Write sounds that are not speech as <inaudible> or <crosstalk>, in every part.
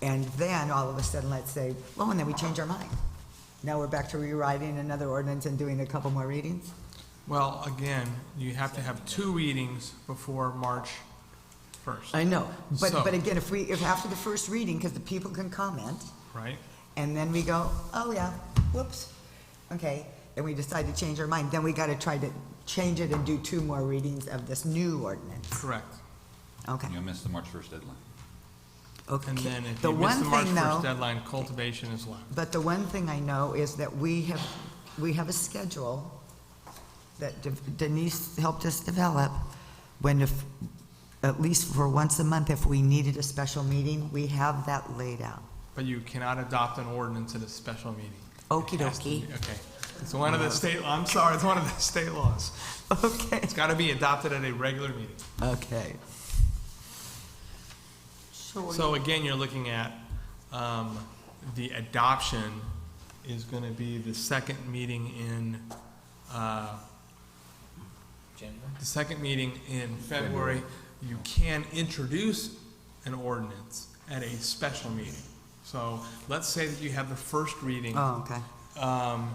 And then, all of a sudden, let's say, well, and then we change our mind. Now we're back to rewriting another ordinance and doing a couple more readings? Well, again, you have to have two readings before March 1st, I know, but, So- but again, if we, if after the first reading, because the people can comment, right? and then we go, oh, yeah, whoops, okay, then we decide to change our mind, then we gotta try to change it and do two more readings of this new ordinance. Correct. Okay, You'll miss the March 1st deadline. okay. And then if The you miss one the March thing, 1st though, deadline, cultivation is left. But the one thing I know is that we have, we have a schedule that De- Denise helped us develop, when if, at least for once a month, if we needed a special meeting, we have that laid out. But you cannot adopt an ordinance at a special meeting. Okie It has to dokie. be- Okay. It's one of the state, I'm sorry, it's one of the state laws. <laughs> Okay. It's got to be adopted at a regular meeting. Okay. So again, you're looking at, um, the adoption is going to be the second meeting in, uh, the second meeting in February. You can introduce an ordinance at a special meeting. So let's say that you have the first reading Oh, okay. um,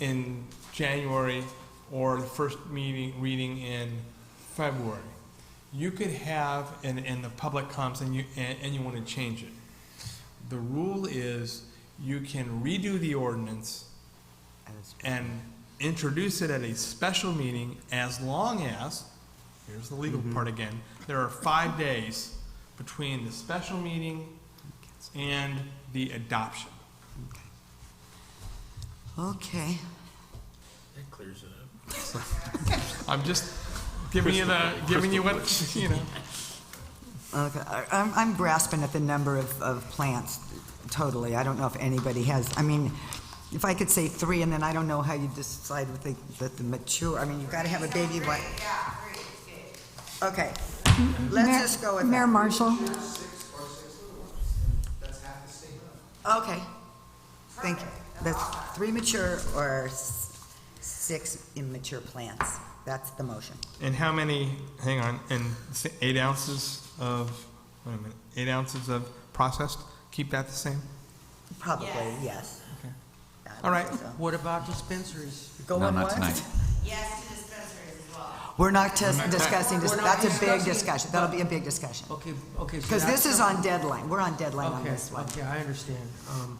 in January or the first meeting, reading in February. You could have, and, and the public comes and you, and, and you want to change it. The rule is you can redo the ordinance and introduce it at a special meeting as long as, here's the legal part again, there are five days between the special meeting and the adoption. Okay. I'm just giving you the, giving you what, <laughs> you know. Okay, I- I'm, I'm grasping at the number of, of plants totally. I don't know if anybody has, I mean, if I could say three, and then I don't know how you decide with the, that the mature, I mean, you've got to have a baby one. Okay, let's Mayor- just go with Mayor that. Marshall, Okay, thank you. That's three mature or s- six immature plants. That's the motion. And how many, hang on, and s- eight ounces of, wait a minute, eight ounces of processed? Keep that the same? Probably, yes. Okay. I would All right. say so. What about dispensaries? Go No, on not what? tonight. Yes to dispensaries as well. We're not just discussing, this. We're not that's a big discussing it. discussion. That'll be a big discussion. Okay, okay. so Because that's this is something- on deadline, we're on deadline on Okay, this one. Okay, I understand. Um,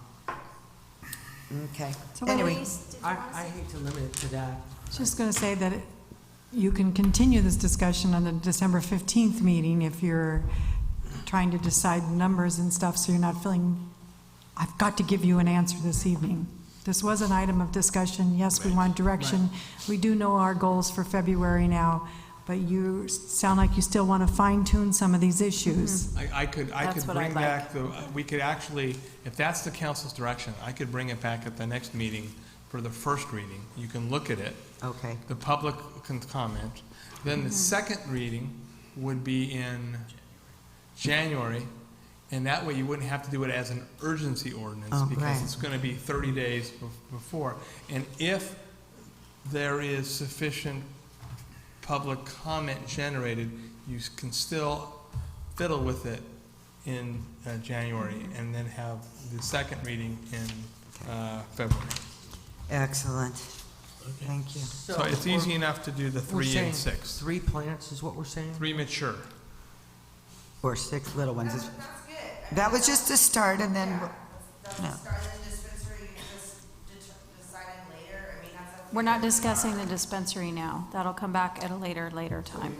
Okay. So what Anyway, I, I hate to limit it to that. just going to say that it- you can continue this discussion on the December 15th meeting if you're trying to decide numbers and stuff, so you're not feeling, I've got to give you an answer this evening. This was an item of discussion, yes, we want direction. We do know our goals for February now, but you s- sound like you still want to fine tune some of these issues. I, I could, I could That's what I bring like. back the, we could actually, if that's the council's direction, I could bring it back at the next meeting for the first reading. You can look at it. okay, The public can comment. Then Mm-hmm. the second reading would be in January, and that way you wouldn't have to do it as an urgency ordinance Oh, because right. it's going to be 30 days bef- before. And if there is sufficient public comment generated, you s- can still fiddle with it in uh, January Mm-hmm. and then have the second reading in uh, February. excellent. Thank you. So it's we're- easy enough to do the we're three and saying six. Three plants is what we're saying? Three mature. Or six little ones. That's, It's- that's good. I mean, That was just a start, and then, Yeah, that's no. the start of the dispensary, you just det- deciding later, I mean, that's. up to We're not you. discussing the dispensary now. That'll come back at a later, later time.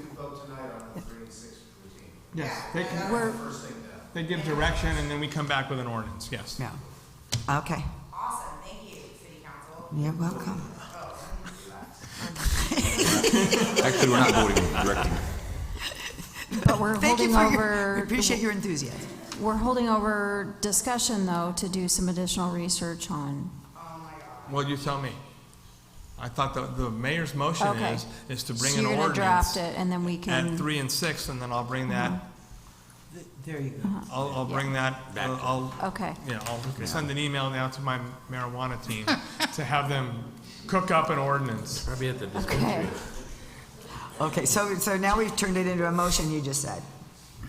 Yes, they can, they give direction and then we come back with an ordinance, yes. yeah. Okay, Awesome, thank you, city council. you're welcome. Actually, we're not voting, we're directing. But we're Thank you holding for your, we over, appreciate your enthusiasm. we're holding over discussion, though, to do some additional research on. Well, you tell me. I thought the, the mayor's motion Okay. is, is to bring So an you're gonna ordinance draft it, and Mm-hmm. then we at can, three and six and then I'll bring that, Th- There you go. I'll, I'll bring that, uh, I'll, okay. yeah, I'll send an email now to my marijuana team to have them cook up an ordinance. Probably at the Okay, Okay, so, so now we've turned it into a motion, you just said.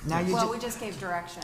Now you just. well, we just gave direction.